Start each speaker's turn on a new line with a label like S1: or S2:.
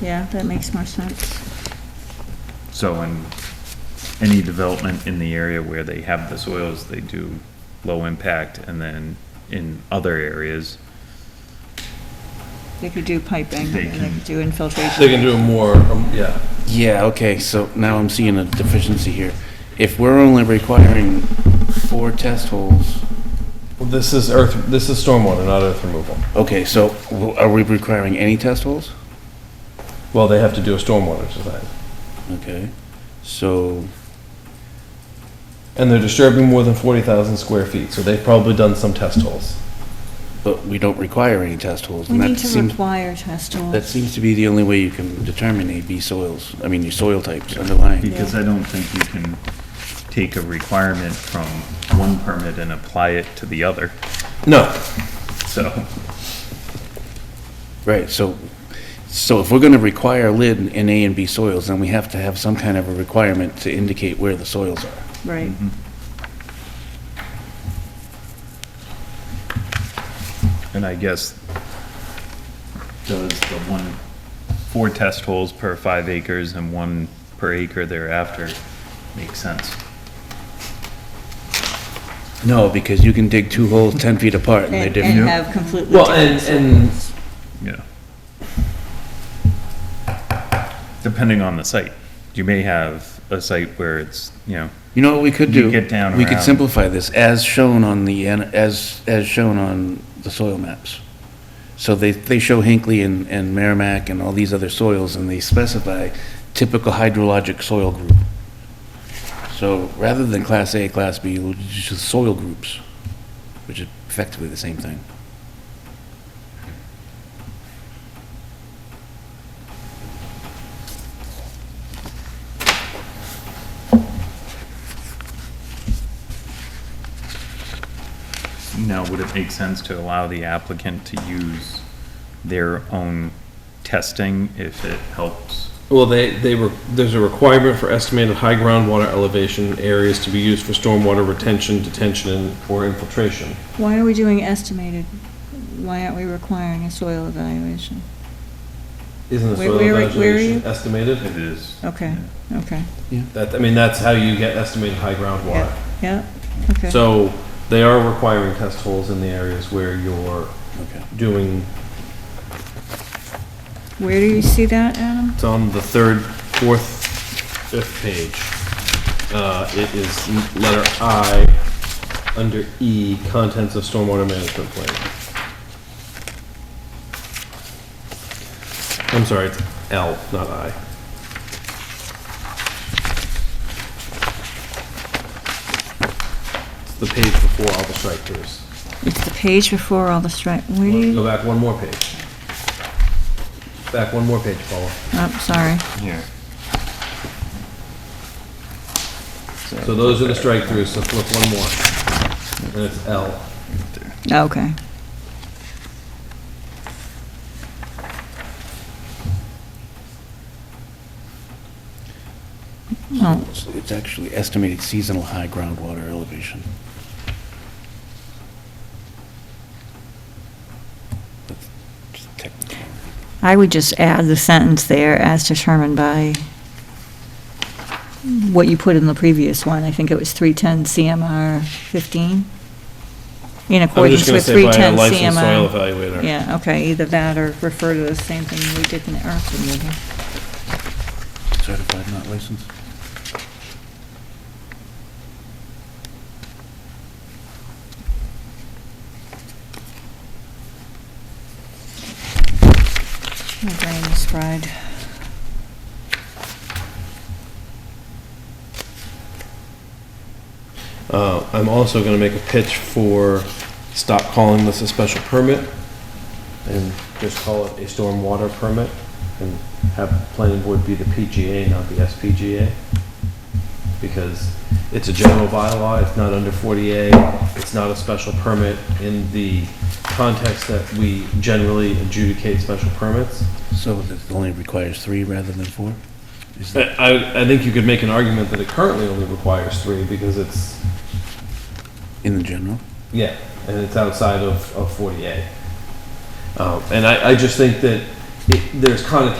S1: Yeah, that makes more sense.
S2: So in any development in the area where they have the soils, they do low impact, and then in other areas,
S1: They could do piping,
S2: They
S1: and they
S2: can-
S1: could do infiltration.
S3: They can do more, um, yeah.
S4: Yeah, okay, so now I'm seeing a deficiency here. If we're only requiring four test holes,
S3: Well, This is earth, this is stormwater, not earth removal.
S4: okay, so w- are we requiring any test holes?
S3: Well, they have to do a stormwater design.
S4: Okay, so,
S3: And they're disturbing more than 40,000 square feet, so they've probably done some test holes.
S4: but we don't require any test holes.
S1: We
S4: and that
S1: need to
S4: seems-
S1: require test
S4: That
S1: holes.
S4: seems to be the only way you can determine AB soils, I mean, your soil types underlying.
S2: because I don't think you can take a requirement from one permit and apply it to the other,
S3: No,
S2: so.
S4: Right, so, so if we're gonna require lid in A and B soils, then we have to have some kind of a requirement to indicate where the soils are.
S1: Right.
S2: Mm-hmm. And I guess, does the one, four test holes per five acres and one per acre thereafter make sense?
S4: No, because you can dig two holes 10 feet apart and they're
S1: And
S4: different.
S1: and have completely
S3: well, and,
S1: different.
S3: and
S2: Yeah. Depending on the site. You may have a site where it's, you know,
S4: You know what we could
S2: You
S4: do?
S2: get down
S4: We could
S2: around-
S4: simplify this as shown on the, an- as, as shown on the soil maps. So they, they show Hinckley and, and Merrimack and all these other soils, and they specify typical hydrologic soil group. So rather than class A, class B, we'll just soil groups, which is effectively the same thing.
S2: now would it make sense to allow the applicant to use their own testing if it helps?
S3: Well, they, they were, there's a requirement for estimated high groundwater elevation areas to be used for stormwater retention, detention, and- or infiltration.
S1: Why are we doing estimated? Why aren't we requiring a soil evaluation?
S3: Isn't the
S1: Where-
S3: soil
S1: where- where are you?
S3: evaluation estimated?
S2: It is.
S1: Okay, okay.
S3: That, I mean, that's how you get estimated high groundwater.
S1: Yeah, okay.
S3: So they are requiring test holes in the areas where you're
S4: Okay.
S3: doing,
S1: Where do you see that, Adam?
S3: it's on the third, fourth, fifth page. Uh, it is letter I, under E, contents of stormwater management plan. I'm sorry, it's L, not I. It's the page before all the strike throughs.
S1: It's the page before all the strike. Where do
S3: Go
S1: you,
S3: back one more page. Back one more page, Paula.
S1: oh, sorry.
S2: Here.
S3: So those are the strike throughs, so flip one more. And it's L.
S1: Okay. Oh,
S4: So It's actually estimated seasonal high groundwater elevation. That's just technical.
S1: I would just add the sentence there, as determined by what you put in the previous one, I think it was 310 CMR 15? In accordance with 310 CMR.
S3: evaluator.
S1: Yeah, okay, either that or refer to the same thing we did in the earth removal.
S4: Certified, not licensed?
S1: My brain is fried.
S3: Uh, I'm also gonna make a pitch for stop calling this a special permit and just call it a stormwater permit and have planning board be the PGA, not the SPGA. Because it's a general bylaw, it's not under 40A, it's not a special permit in the context that we generally adjudicate special permits.
S4: So it only requires three rather than four? Is that-
S3: I, I think you could make an argument that it currently only requires three because it's,
S4: In the general?
S3: yeah, and it's outside of, of 48. Um, and I, I just think that it, there's connotations